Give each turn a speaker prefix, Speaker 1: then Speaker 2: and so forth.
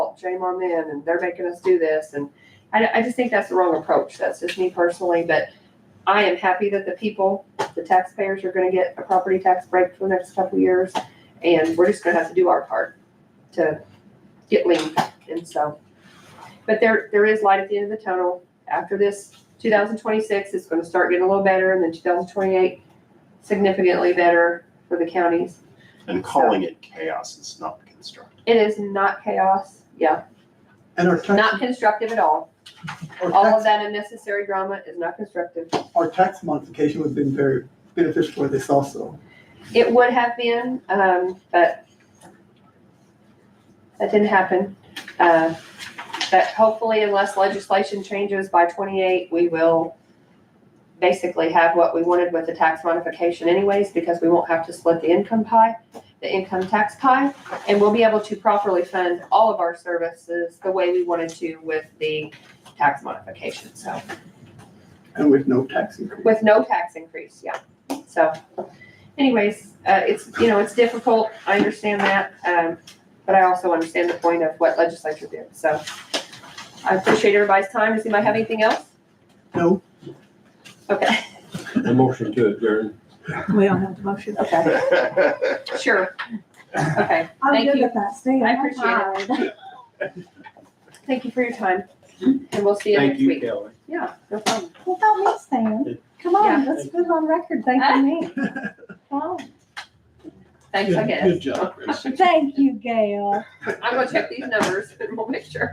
Speaker 1: fault, shame on them, and they're making us do this, and I, I just think that's the wrong approach, that's just me personally, but I am happy that the people, the taxpayers are gonna get a property tax break for the next couple of years, and we're just gonna have to do our part to get lean, and so. But there, there is light at the end of the tunnel, after this, two thousand twenty-six, it's gonna start getting a little better, and then two thousand twenty-eight, significantly better for the counties.
Speaker 2: And calling it chaos is not constructive.
Speaker 1: It is not chaos, yeah,
Speaker 3: And our
Speaker 1: not
Speaker 3: tax,
Speaker 1: constructive at all.
Speaker 3: our
Speaker 1: All of
Speaker 3: tax,
Speaker 1: that unnecessary drama is not constructive.
Speaker 3: our tax modification would have been very beneficial for this also.
Speaker 1: It would have been, um, but that didn't happen. Uh, but hopefully unless legislation changes by twenty-eight, we will basically have what we wanted with the tax modification anyways, because we won't have to split the income pie, the income tax pie, and we'll be able to properly fund all of our services the way we wanted to with the tax modification, so
Speaker 3: And with no tax increase.
Speaker 1: with no tax increase, yeah. So anyways, uh, it's, you know, it's difficult, I understand that, um, but I also understand the point of what legislature did, so. I appreciate everybody's time, does anybody have anything else?
Speaker 3: No,
Speaker 1: Okay,
Speaker 4: A motion to adjourn.
Speaker 5: We don't have the motion.
Speaker 1: okay, sure, okay,
Speaker 5: I'm
Speaker 1: Thank
Speaker 5: good
Speaker 1: you.
Speaker 5: with that, Stan.
Speaker 1: I appreciate
Speaker 5: it.
Speaker 1: thank you for your time, and we'll see you
Speaker 4: Thank
Speaker 1: next
Speaker 4: you,
Speaker 1: week.
Speaker 4: Kelly.
Speaker 1: Yeah, no problem.
Speaker 5: Without me, Stan. Come on, let's put on record, thank you, me. Wow.
Speaker 1: Thanks, I guess.
Speaker 6: Good job, Chris.
Speaker 5: Thank you, Gail.
Speaker 1: I'm gonna check these numbers, and we'll make sure.